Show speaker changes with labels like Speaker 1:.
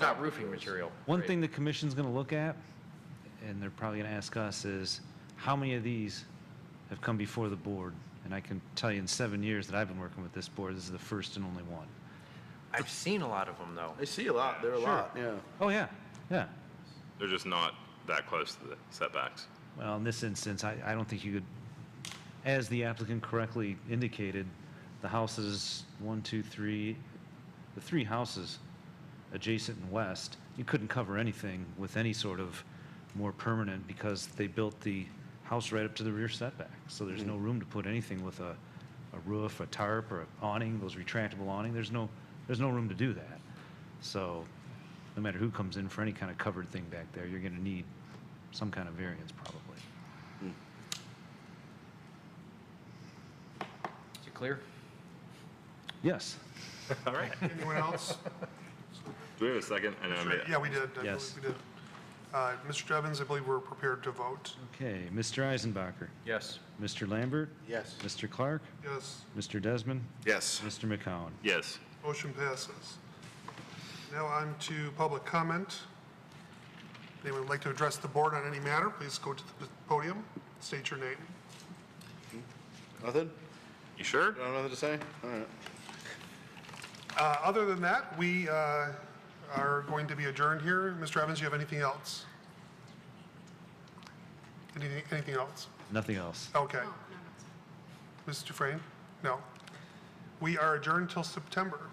Speaker 1: Not roofing material.
Speaker 2: One
Speaker 1: right.
Speaker 2: thing the commission's going to look at, and they're probably going to ask us, is how many of these have come before the board? And I can tell you in seven years that I've been working with this board, this is the first and only one.
Speaker 1: I've seen a lot of them, though.
Speaker 3: I see a lot, there are a lot, yeah.
Speaker 2: Oh, yeah, yeah.
Speaker 4: They're just not that close to the setbacks.
Speaker 2: Well, in this instance, I, I don't think you could, as the applicant correctly indicated, the houses, one, two, three, the three houses adjacent and west, you couldn't cover anything with any sort of more permanent because they built the house right up to the rear setback. So there's no room to put anything with a, a roof, a tarp, or an awning, those retractable awning. There's no, there's no room to do that. So no matter who comes in for any kind of covered thing back there, you're going to need some kind of variance probably.
Speaker 1: Is it clear?
Speaker 2: Yes.
Speaker 4: All right.
Speaker 5: Anyone else?
Speaker 4: Do we have a second? And then I
Speaker 5: Sure,
Speaker 4: made-
Speaker 5: Yeah, we did. I believe
Speaker 2: Yes.
Speaker 5: We did. Uh, Mr. Evans, I believe we're prepared to vote.
Speaker 2: Okay, Mr. Eisenbacher,
Speaker 1: Yes.
Speaker 2: Mr. Lambert,
Speaker 3: Yes.
Speaker 2: Mr. Clark,
Speaker 5: Yes,
Speaker 2: Mr. Desmond,
Speaker 3: Yes.
Speaker 2: Mr. McCowen.
Speaker 4: Yes.
Speaker 5: motion passes. Now on to public comment. If Anyone would like to address the board on any matter, please go to the podium, state your name.
Speaker 3: Nothing?
Speaker 4: You sure?
Speaker 3: Got nothing to say? All right.
Speaker 5: Uh, Other than that, we uh, are going to be adjourned here. Mr. Evans, you have anything else? Anything, anything else?
Speaker 2: Nothing else.
Speaker 5: Okay. Mr. Dufrain? No. We are adjourned till September.